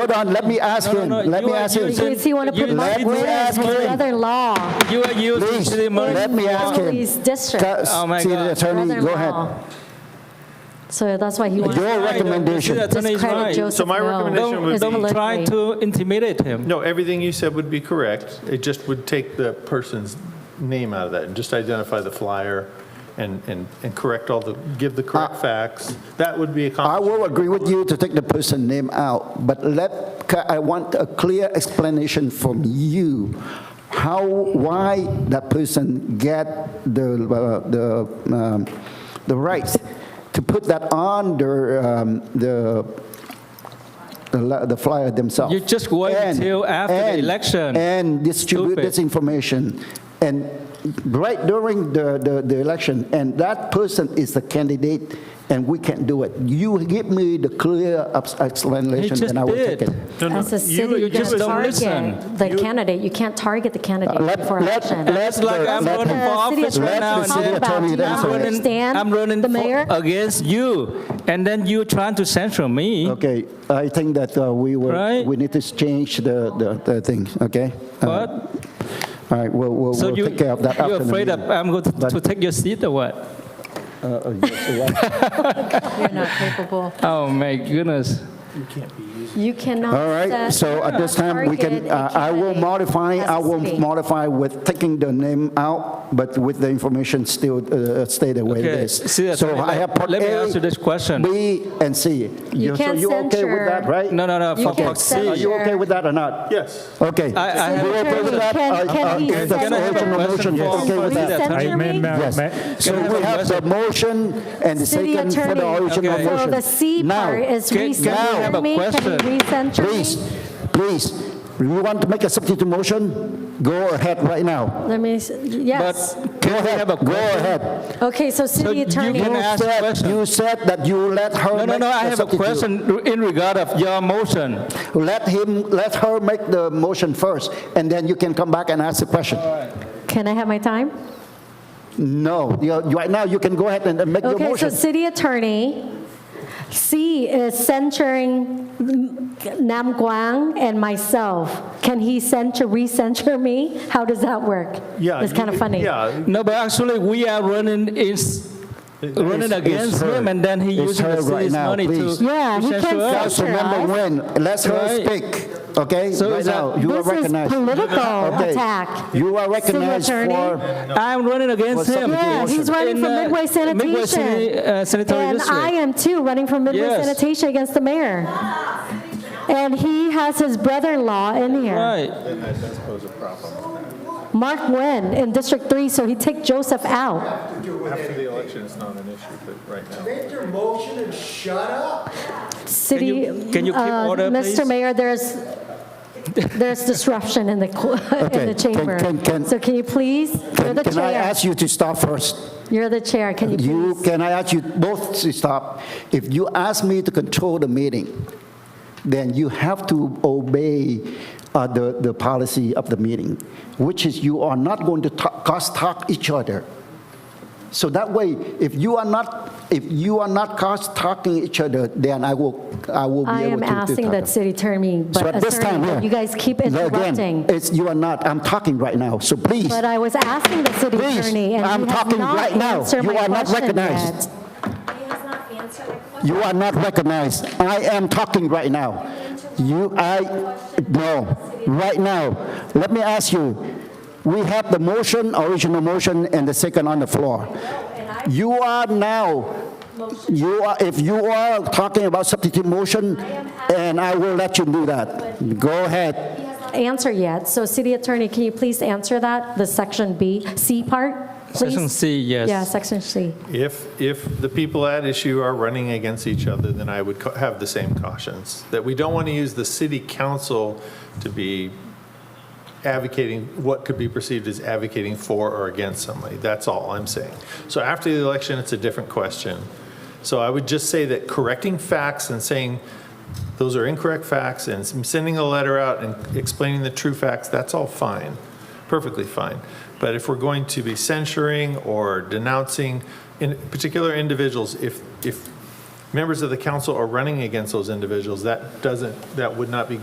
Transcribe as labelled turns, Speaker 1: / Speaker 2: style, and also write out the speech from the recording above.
Speaker 1: Hold on, let me ask
Speaker 2: No,
Speaker 1: him,
Speaker 2: no, no,
Speaker 1: let
Speaker 2: you
Speaker 1: me
Speaker 2: are
Speaker 1: ask him.
Speaker 2: using-
Speaker 3: Does he want to
Speaker 2: You
Speaker 3: put
Speaker 2: let
Speaker 3: Mark
Speaker 2: me
Speaker 3: Wheaton as
Speaker 1: ask
Speaker 3: his
Speaker 1: him.
Speaker 3: brother-in-law?
Speaker 2: You are using
Speaker 1: Please,
Speaker 2: city
Speaker 1: let me ask
Speaker 3: in
Speaker 1: him.
Speaker 3: His district.
Speaker 1: Ca-
Speaker 2: Oh, my
Speaker 1: City
Speaker 2: God.
Speaker 1: Attorney, go ahead.
Speaker 3: Brother-in-law. So that's why he wants
Speaker 1: Your
Speaker 3: to
Speaker 1: recommendation.
Speaker 2: City attorney is
Speaker 3: discredit
Speaker 2: right.
Speaker 3: Joseph.
Speaker 4: So my
Speaker 3: Ngo.
Speaker 4: recommendation
Speaker 2: Don't,
Speaker 4: would
Speaker 3: It's
Speaker 2: don't try
Speaker 3: politically-
Speaker 2: to intimidate him.
Speaker 4: No, everything you said would be correct. It just would take the person's name out of that and just identify the flyer and, and, and correct all the, give the correct facts. That would be
Speaker 1: I
Speaker 4: accomplished.
Speaker 1: will agree with you to take the person name out, but let, ca- I want a clear explanation from you, how, why that person get the, uh, the, um, the right to put that on their, um, the, the li- the flyer themselves.
Speaker 2: You just wait
Speaker 1: And-
Speaker 2: till after the
Speaker 1: and-
Speaker 2: election.
Speaker 1: And distribute
Speaker 2: Stupid.
Speaker 1: this information, and right during the, the, the election, and that person is the candidate, and we can't do it. You give me the clear abs- explanation,
Speaker 2: just
Speaker 1: and I will
Speaker 2: did.
Speaker 1: take it.
Speaker 4: No, no,
Speaker 3: As a
Speaker 4: you-
Speaker 3: city,
Speaker 4: you
Speaker 3: you
Speaker 2: just
Speaker 3: can't
Speaker 2: don't
Speaker 3: target
Speaker 2: listen.
Speaker 3: the candidate, you can't target the candidate
Speaker 1: let-
Speaker 3: before
Speaker 1: let-
Speaker 3: election.
Speaker 1: let-
Speaker 2: It's like
Speaker 1: Let-
Speaker 2: I'm
Speaker 1: let-
Speaker 2: running for
Speaker 3: Uh, city
Speaker 2: office
Speaker 3: attorney
Speaker 2: right now.
Speaker 1: Let the
Speaker 2: and
Speaker 1: city
Speaker 2: then
Speaker 1: attorney
Speaker 3: Do you
Speaker 2: I'm
Speaker 1: answer it.
Speaker 2: running-
Speaker 3: understand
Speaker 2: I'm running
Speaker 3: the
Speaker 2: for-
Speaker 3: mayor?
Speaker 2: against you, and then you trying to censor me.
Speaker 1: Okay, I think that uh, we will,
Speaker 2: Right?
Speaker 1: we need to change the, the, the thing, okay? Uh,
Speaker 2: What?
Speaker 1: All right, we'll, we'll
Speaker 2: So
Speaker 1: we'll
Speaker 2: you,
Speaker 1: take care of that after
Speaker 2: you're
Speaker 1: the
Speaker 2: afraid of
Speaker 1: meeting.
Speaker 2: I'm going to
Speaker 1: But-
Speaker 2: to take your seat or what?
Speaker 1: Uh, uh, yes, uh,
Speaker 3: You're not capable.
Speaker 2: Oh, my goodness.
Speaker 3: You cannot.
Speaker 1: All right,
Speaker 3: set-
Speaker 1: so at this time, we
Speaker 3: target
Speaker 1: can,
Speaker 3: a
Speaker 1: uh, I will
Speaker 3: candidate
Speaker 1: modify,
Speaker 3: as
Speaker 1: I
Speaker 3: a
Speaker 1: will
Speaker 3: city.
Speaker 1: modify with taking the name out, but with the information still uh, stay the way it
Speaker 2: Okay,
Speaker 1: is.
Speaker 2: see,
Speaker 1: So
Speaker 2: attorney,
Speaker 1: I have part
Speaker 2: let me
Speaker 1: A,
Speaker 2: ask you this question.
Speaker 1: B, and C.
Speaker 3: You
Speaker 1: So
Speaker 3: can't
Speaker 1: you okay with
Speaker 3: censure-
Speaker 1: that, right?
Speaker 2: No, no, no,
Speaker 3: You
Speaker 2: for
Speaker 3: can
Speaker 2: fuck's
Speaker 3: censor-
Speaker 1: Are
Speaker 2: sake.
Speaker 1: you okay with that or not?
Speaker 4: Yes.
Speaker 1: Okay.
Speaker 2: I- I have
Speaker 1: You
Speaker 2: a
Speaker 1: okay with that?
Speaker 3: Can-
Speaker 1: Uh,
Speaker 3: can
Speaker 1: uh,
Speaker 3: he
Speaker 1: if that's
Speaker 3: Can I
Speaker 1: the
Speaker 3: have a
Speaker 1: original
Speaker 2: question
Speaker 1: motion, yes,
Speaker 2: for-
Speaker 1: okay
Speaker 2: for
Speaker 1: with
Speaker 2: the
Speaker 1: that?
Speaker 2: attorney?
Speaker 5: I may,
Speaker 3: Attorney?
Speaker 5: may-
Speaker 1: Yes.
Speaker 5: may-
Speaker 1: So
Speaker 2: I have
Speaker 1: we
Speaker 2: a
Speaker 1: have the
Speaker 2: question?
Speaker 1: motion and the
Speaker 3: City
Speaker 1: second for the
Speaker 3: attorney.
Speaker 1: original
Speaker 2: Okay.
Speaker 3: So
Speaker 1: motion.
Speaker 3: the C
Speaker 1: Now,
Speaker 3: part is
Speaker 2: can- can I have
Speaker 3: recenter
Speaker 2: a
Speaker 3: me,
Speaker 2: question?
Speaker 3: can you recenter me?
Speaker 1: Please, please, you want to make a substitute motion? Go ahead right now.
Speaker 3: Let me, s-
Speaker 2: But
Speaker 3: yes.
Speaker 1: Go
Speaker 2: can we
Speaker 1: ahead,
Speaker 2: have a
Speaker 1: go
Speaker 2: question?
Speaker 1: ahead.
Speaker 3: Okay, so city
Speaker 2: you
Speaker 3: attorney,
Speaker 2: can
Speaker 1: You
Speaker 2: ask
Speaker 1: said-
Speaker 2: question.
Speaker 1: You said that you let her
Speaker 2: No, no,
Speaker 1: make
Speaker 2: no, I
Speaker 1: the
Speaker 2: have a
Speaker 1: substitute.
Speaker 2: question in regard of your motion.
Speaker 1: Let him, let her make the motion first, and then you can come back and ask the question.
Speaker 3: can I have my time?
Speaker 1: No, you- you- right now, you can go ahead and and make your
Speaker 3: Okay, so
Speaker 1: motion.
Speaker 3: city attorney, C is censuring Nam Quang and myself. Can he censure, recensure me? How does that work?
Speaker 4: Yeah.
Speaker 3: It's kind of
Speaker 4: you-
Speaker 3: funny.
Speaker 4: Yeah.
Speaker 2: No, but actually, we are running is running
Speaker 1: it's
Speaker 2: against
Speaker 1: her.
Speaker 2: him, and then he
Speaker 1: It's
Speaker 2: using
Speaker 1: her
Speaker 2: the
Speaker 1: right
Speaker 2: city's
Speaker 1: now,
Speaker 2: money to
Speaker 1: please.
Speaker 3: Yeah,
Speaker 2: to
Speaker 3: he can't
Speaker 2: censure us.
Speaker 3: censor.
Speaker 1: Councilmember Nguyen, let her
Speaker 2: Right.
Speaker 1: speak, okay?
Speaker 2: So uh,
Speaker 1: Right
Speaker 2: is that-
Speaker 1: now, you are
Speaker 3: This is
Speaker 1: recognized.
Speaker 3: political
Speaker 1: Okay.
Speaker 3: attack.
Speaker 1: You are
Speaker 3: City
Speaker 1: recognized
Speaker 3: attorney.
Speaker 1: for,
Speaker 2: I'm running against
Speaker 1: Well,
Speaker 2: him.
Speaker 1: some-
Speaker 3: Yeah, he's running
Speaker 2: In,
Speaker 3: for
Speaker 2: uh,
Speaker 3: Midway
Speaker 2: Midway City,
Speaker 3: Sanitation.
Speaker 2: uh, Sanitary
Speaker 3: And I
Speaker 2: District.
Speaker 3: am too, running for Midway
Speaker 2: Yes.
Speaker 3: Sanitation against the mayor. And he has his brother-in-law in here,
Speaker 2: Right,
Speaker 3: Mark Nguyen, in District 3, so he take Joseph out.
Speaker 4: After the election, it's not an issue, but right now.
Speaker 6: Make your motion and shut up.
Speaker 3: City,
Speaker 2: you- can you keep
Speaker 3: uh,
Speaker 2: order,
Speaker 3: Mr.
Speaker 2: please?
Speaker 3: Mayor, there's, there's disruption in the, co- in
Speaker 1: Okay,
Speaker 3: the
Speaker 1: can-
Speaker 3: chamber.
Speaker 1: can- can-
Speaker 3: So can you please, you're
Speaker 1: can
Speaker 3: the
Speaker 1: can I
Speaker 3: chair.
Speaker 1: ask you to stop first?
Speaker 3: You're the chair, can you
Speaker 1: You,
Speaker 3: please?
Speaker 1: can I ask you both to stop? If you ask me to control the meeting, then you have to obey uh, the, the policy of the meeting, which is you are not going to talk, cross-talk each other. So that way, if you are not, if you are not cross-talking each other, then I will, I will be
Speaker 3: I
Speaker 1: able
Speaker 3: am
Speaker 1: to to
Speaker 3: asking
Speaker 1: talk.
Speaker 3: that city attorney,
Speaker 1: So
Speaker 3: but
Speaker 1: at this time,
Speaker 3: attorney,
Speaker 1: yeah.
Speaker 3: you guys keep
Speaker 1: Again,
Speaker 3: interrupting.
Speaker 1: It's, you are not, I'm talking right now, so please.
Speaker 3: But I was asking the city
Speaker 1: Please,
Speaker 3: attorney, and
Speaker 1: I'm
Speaker 3: he has
Speaker 1: talking
Speaker 3: not
Speaker 1: right now.
Speaker 3: answered
Speaker 1: You
Speaker 3: my
Speaker 1: are not
Speaker 3: question
Speaker 1: recognized.
Speaker 3: yet.
Speaker 1: You are not recognized. I am talking right now. You, I, no, right now. Let me ask you, we have the motion, original motion, and the second on the floor. You are now, you are, if you are talking about substitute motion, and I will let you do that. Go ahead.
Speaker 3: Answer yet, so city attorney, can you please answer that, the section B, C part, please?
Speaker 2: section C, yes.
Speaker 3: Yeah, section C.
Speaker 4: If, if the people at issue are running against each other, then I would co- have the same cautions, that we don't want to use the city council to be advocating, what could be perceived as advocating for or against somebody. That's all I'm saying. So after the election, it's a different question. So I would just say that correcting facts and saying, those are incorrect facts, and sending a letter out and explaining the true facts, that's all fine, perfectly fine. But if we're going to be censuring or denouncing in particular individuals, if, if members of the council are running against those individuals, that doesn't, that would not be